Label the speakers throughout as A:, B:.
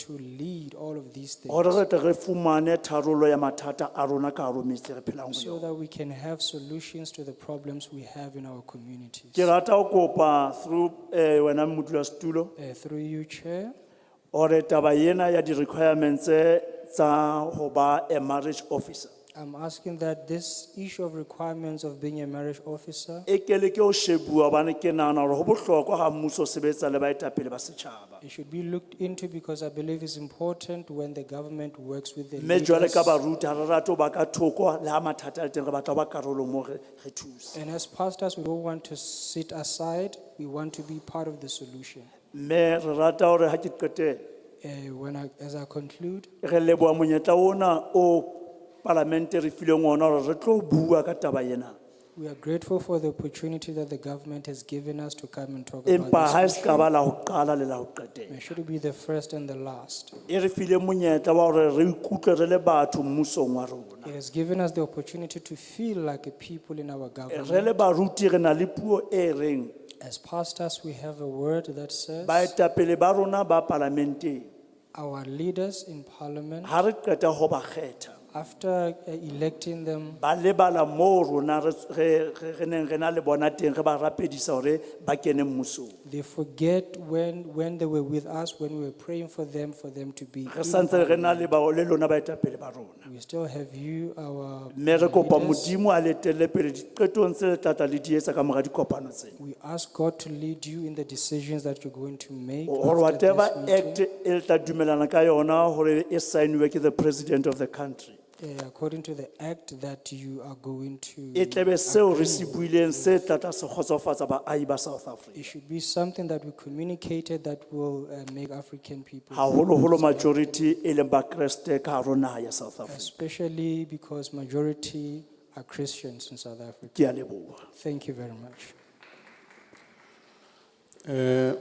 A: to lead all of these things
B: gore re tle re fumane tharolo ya mathata a rona ka haro metse re phelang go
A: so
B: yona
A: that we can have solutions to the problems we have in our communities.
B: ke rata go kopa through eh, wena modulasetulo
A: Uh, Through you, Chair,
B: gore taba ena ya di-requirements tse tsa go ba a marriage officer
A: I'm asking that this issue of requirements of being a marriage officer,
B: e kele ke o shebuwa gobane ke nagana gore go botlhokwa ga mmuso o sebetsa le baetapele ba setšhaba
A: it should be looked into because I believe it's important when the government works with the
B: mme jwale
A: leaders.
B: ka baruti ga re rate go ba ka thoko le ga mathata a le teng re batla go ba karolo mo re re thuse
A: And as pastors, we don't want to sit aside, we want to be part of the solution.
B: mme re rata gore ga ke qetele
A: Uh, When I, as I conclude,
B: re leboa monyetla ona o palamente re fileng ona gore re tlo bua ka taba ena
A: we are grateful for the opportunity that the government has given us to come and talk
B: empa
A: about
B: ga e
A: this.
B: se ka ba la go qala le la go qetela
A: May should it be the first and the last.
B: e re file monyetla wa gore re ikutlwe re le batho mmusong wa rona
A: It has given us the opportunity to feel like a people in our
B: re
A: government.
B: le baruti re na le puo e reng
A: As pastors, we have a word that says
B: baetapele ba rona ba palamenteng
A: our leaders in parliament,
B: ga re qeta go ba kgetha
A: after uh, electing them,
B: ba lebala moo rona re- re re- re neng re na le bona teng re ba rapedisa gore ba kene mmusong
A: they forget when, when they were with us, when we were praying for them, for them to be.
B: re
A: in
B: santse re na
A: parliament.
B: le bao- le lona baetapele ba rona
A: We still have you, our
B: mme re kopa
A: leaders.
B: modimo a letelle pele diqetong tse le tlatla le di etsa ka mora dikopano tseno
A: We ask God to lead you in the decisions that you're going to make.
B: gore
A: after this
B: whatever
A: meeting.
B: act e le tla dumelana ka yona gore e signiwe ke the president of the country
A: Eh, According to the act that you are going to.
B: e tlebe seo re se buileng se tlatla se kgotsofatsa baahi ba south africa
A: It should be something that we communicated that will uh, make African people.
B: haholoholo majority e leng bakreste ka haro naha ya south africa
A: Especially because majority are Christians in South Africa.
B: ke a leboha
A: Thank you very much.
C: Uh,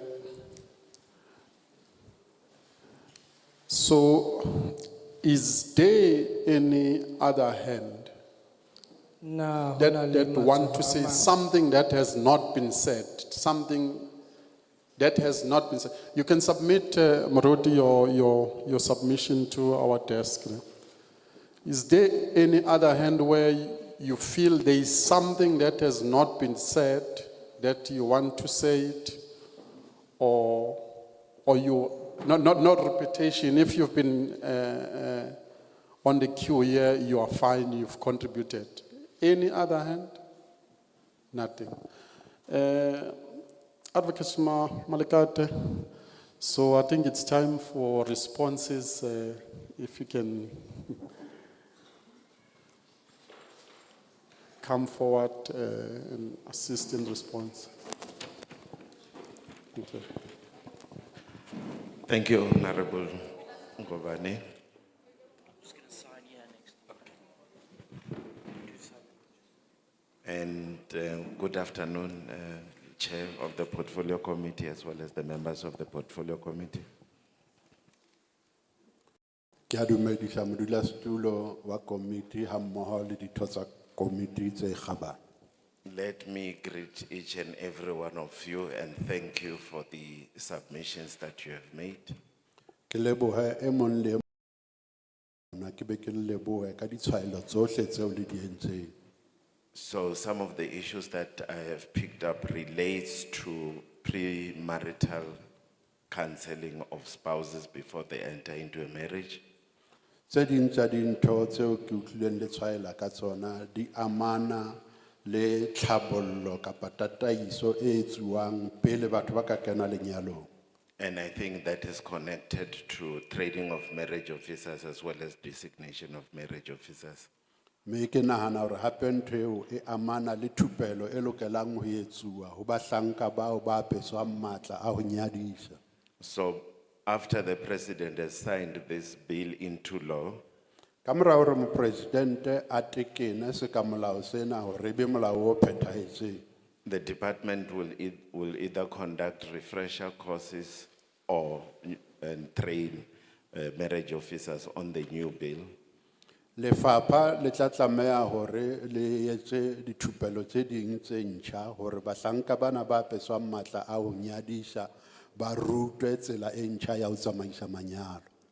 C: So is there any other hand
A: Na
C: that,
A: hona le
C: that
A: matsoho
C: want
A: a
C: to say
A: mang.
C: something that has not been said, something that has not been said? You can submit, uh, Maroti, your, your, your submission to our desk. Is there any other hand where you feel there is something that has not been said that you want to say it? Or, or you, not, not, not repetition, if you've been uh, uh, on the queue here, you are fine, you've contributed. Any other hand? Nothing. Uh, Advocate Ma- Malekate, so I think it's time for responses, uh, if you can come forward uh, and assist in response. Thank you.
D: Thank you, Honorable Ngobane. And uh, good afternoon, uh, Chair of the Portfolio Committee as well as the members of the Portfolio Committee.
E: Ke a dumedisa modulasetulo wa komiti ha mmoho le ditho tsa komiti tse kgabane.
D: Let me greet each and every one of you and thank you for the submissions that you have made.
E: Ke lebohe e mong le e mong na ke be ke le lebohe ka ditshwaelo tsohle tseo le di entseng.
D: So some of the issues that I have picked up relates to premarital counseling of spouses before they enter into a marriage.
E: Tse ding tsa dintho tseo ke utlwileng le tshwaela ka tsona di amana le tlhabollo kapa tataiso e etsuwang pele batho ba ka kena lenyalong.
D: And I think that is connected to training of marriage officers as well as designation of marriage officers.
E: Me ke nahana hore hape ntho eo e amana le thupelo e lokelang ho etsuwa ho bahlanka bao ba apeswang matla a ho nyadisa.
D: So after the president has signed this bill into law,
E: Ka mora hore mopresidente a tekene se ka molao sena hore e be molao o phethahetseng.
D: the department will, ei- will either conduct refresher courses or and train uh, marriage officers on the new bill.
E: Lefapha le tla tlameha hore le etse dithupelo tse ding tse ntjha hore bahlanka bana ba apeswang matla a ho nyadisa ba rutwe tsela e ntjha ya ho tsamaisa manyalo.